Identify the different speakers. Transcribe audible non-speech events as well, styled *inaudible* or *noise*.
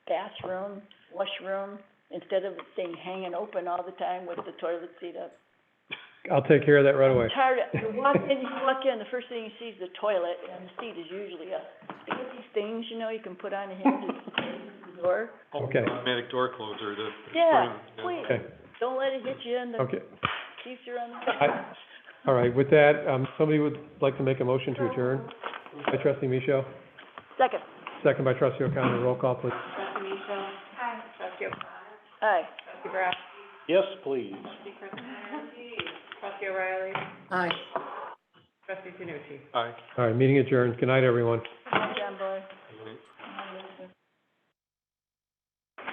Speaker 1: bathroom, washroom, instead of it staying hanging open all the time with the toilet seat up.
Speaker 2: I'll take care of that right away.
Speaker 1: Tired, of- you walk in, you walk in, the first thing you see is the toilet, and the seat is usually up. You get these things, you know, you can put on a hinge and *laughs* door.
Speaker 2: Okay.
Speaker 3: Automatic door closer to.
Speaker 1: Yeah, please,
Speaker 2: Okay,
Speaker 1: don't let it hit you in the,
Speaker 2: okay,
Speaker 1: keeps you on the.
Speaker 2: I- all right, with that, um, somebody would like to make a motion to adjourn by trustee Michelle,
Speaker 1: *laughs* Second,
Speaker 2: second by trustee O'Connor, roll call please.
Speaker 1: aye.
Speaker 3: Yes, please.
Speaker 1: Aye.
Speaker 3: Aye.
Speaker 2: All right, meeting adjourned, good night, everyone.
Speaker 1: John Boy.
Speaker 3: Good night.